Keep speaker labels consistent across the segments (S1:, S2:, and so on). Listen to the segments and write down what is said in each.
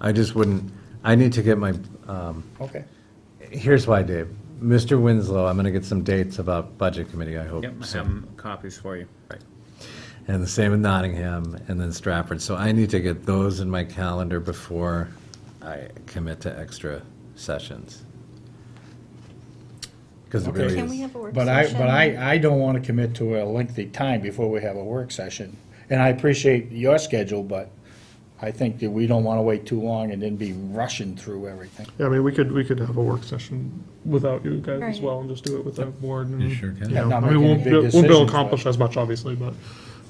S1: I just wouldn't, I need to get my, um,
S2: Okay.
S1: here's why, Dave. Mr. Winslow, I'm going to get some dates about Budget Committee, I hope.
S3: Yep, I have
S1: soon.
S3: 'em copies for you.
S1: Right. And the same with Nottingham and then Stratford. So I need to get those in my calendar before I commit to extra sessions. Because it
S2: Okay.
S1: really
S2: Can
S4: Can we
S1: is.
S4: have a work
S2: But I,
S4: session?
S2: but I, I don't want to commit to a lengthy time before we have a work session. And I appreciate your schedule, but I think that we don't want to wait too long and then be rushing through everything.
S5: Yeah, I mean, we could, we could have a work session without you guys as
S4: Right.
S5: well and just do it with the board and.
S1: You sure can.
S5: you know,
S2: Not
S5: I mean,
S2: make
S5: won't,
S2: any
S5: be-
S2: big
S5: won't be able
S2: decisions,
S5: to accomplish as much, obviously, but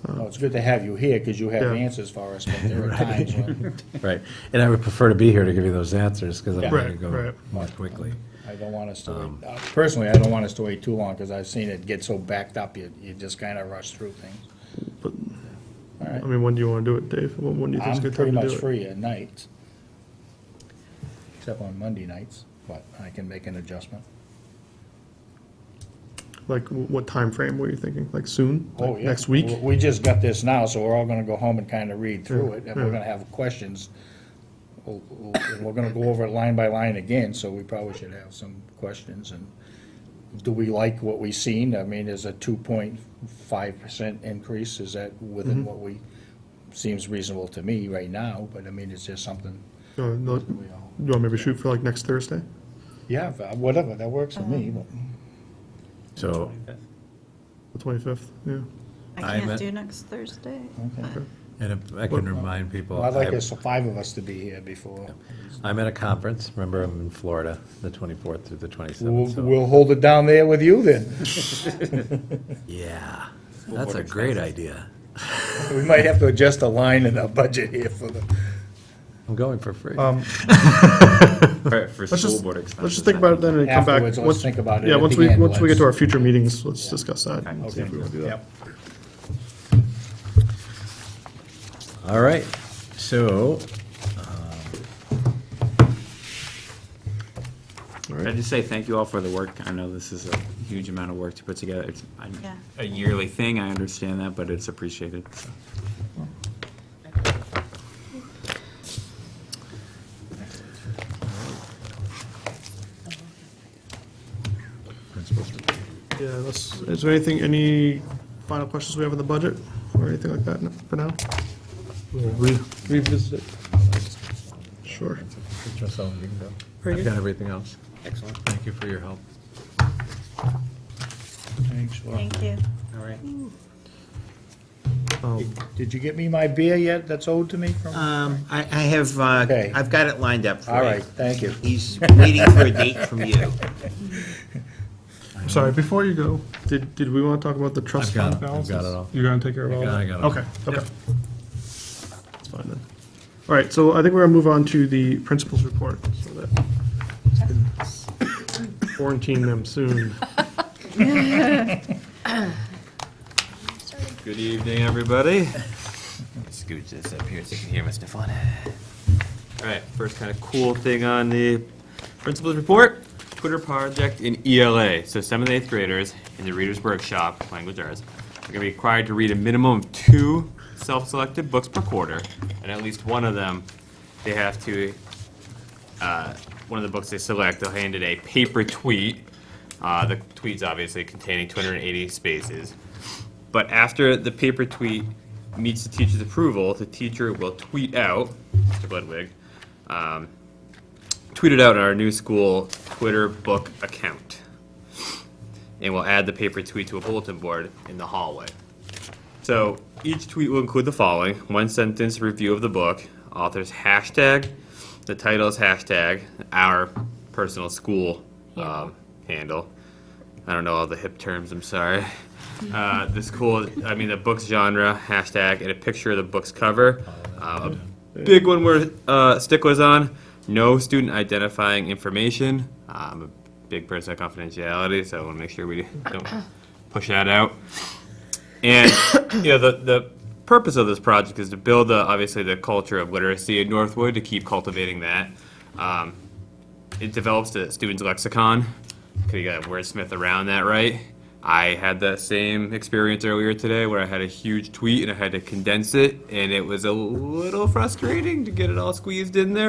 S2: Well, it's good to have you here because you have
S5: Yeah.
S2: answers for us, but there are times when
S1: Right. And I would prefer to be here to give you those answers because I'm
S2: Yeah.
S1: going to
S5: Right,
S1: go
S5: right.
S1: more quickly.
S2: I don't want us to
S5: Um,
S2: wait. Uh, Personally, I don't want us to wait too long because I've seen it get so backed up, you, you just kind of rush through things.
S5: I mean, when do you want to do it, Dave? When, when do you think's a
S2: I'm
S5: good
S2: pretty
S5: time to
S2: much
S5: do it?
S2: free at nights, except on Monday nights, but I can make an adjustment.
S5: Like, wh- what time frame were you thinking? Like soon?
S2: Oh,
S5: Like,
S2: yeah.
S5: Next week?
S2: We- We just got this now, so we're all gonna go home and kind of read through it, and we're gonna have questions. We'll- we'll- and We're gonna go over it line by line again, so we probably should have some questions, and do we like what we seen? I mean, is a two point five percent increase, is that
S5: Mm-hmm.
S2: within what we, seems reasonable to me right now, but I mean, is there something
S5: Uh, no,
S2: we
S5: you
S2: all?
S5: want maybe shoot for like next Thursday?
S2: Yeah, whatever, that works for me,
S1: Um,
S2: but.
S1: So
S5: The twenty-fifth, yeah.
S4: I
S1: I'm at-
S4: can't do next Thursday. but-
S1: And if I can remind people,
S2: Well, I'd like
S1: I-
S2: us, five of us to be here before.
S1: I'm at a conference, remember, I'm in Florida, the 24th through the
S2: We'll,
S1: 27th. so-
S2: we'll hold it down there with you then.
S1: Yeah, that's a great idea.
S2: We might have to adjust a line in our budget here for the.
S1: I'm going for free.
S5: Um,
S3: For, for
S5: let's
S3: school
S5: just,
S3: board
S5: let's
S3: expenses.
S5: just think about it then and come back.
S2: Afterwards, let's
S5: Once-
S2: think about it
S5: Yeah,
S2: at
S5: once
S2: the
S5: we,
S2: end,
S5: once we get to
S2: let's-
S5: our future meetings, let's discuss that. and see if we wanna do that.
S2: Yep.
S1: All right, so,
S3: Can I just say thank you all for the work? I know this is a huge amount of work to put together. It's a-
S4: Yeah.
S3: a yearly thing, I understand that, but it's appreciated, so.
S5: Yeah, that's, is there anything, any final questions we have on the budget or anything like that for now? We'll re- Revisit it. Sure.
S1: Marcel, you can go. I've got everything else. Excellent. Thank you for your help.
S2: Thanks, well,
S4: Thank you.
S3: All right.
S5: Um,
S2: Did you get me my beer yet that's owed to me
S3: Uh,
S2: from?
S6: Um, I, I have, uh,
S2: Okay.
S6: I've got it lined up for you.
S2: All right, thank you.
S6: He's waiting for a date from you.
S5: Sorry, before you go, did, did we want to talk about the
S1: I've
S5: trust
S1: got
S5: fund
S1: it. I've
S5: balances?
S1: got it all.
S5: You're gonna take care of all
S1: got-
S5: that?
S1: I got it all.
S5: Okay, okay. That's fine then. All right, so I think we're gonna move on to the principal's report, so that. Quarantine them soon.
S7: Good evening, everybody.
S6: Scooch this up here so you can hear Mr. Flynn.
S7: All right, first kind of cool thing on the principal's report, Twitter project in ELA. So seventh and eighth graders in the Reader's Workshop, language arts, are gonna be required to read a minimum of two self-selected books per quarter, and at least one of them, they have to, uh, one of the books they select, they'll hand it a paper tweet. Uh, the tweet's obviously containing two hundred and eighty spaces. But after the paper tweet meets the teacher's approval, the teacher will tweet out, Mr. Ludwig, um, tweet it out on our new school Twitter book account. And we'll add the paper tweet to a bulletin board in the hallway. So each tweet will include the following one sentence review of the book, author's hashtag, the title's hashtag, our personal school um, handle. I don't know all the hip terms, I'm sorry. Uh, the school, I mean, the book's genre, hashtag, and a picture of the book's cover. Uh, a big one where uh, sticklers on no student identifying information. Uh, I'm a big person of confidentiality, so I want to make sure we don't push that out. And you know, the the purpose of this project is to build the obviously the culture of literacy at Northwood to keep cultivating that. Um, it develops the student's lexicon. Could you got a wordsmith around that, right? I had that same experience earlier today where I had a huge tweet and I had to condense it, and it was a little frustrating to get it all squeezed in there.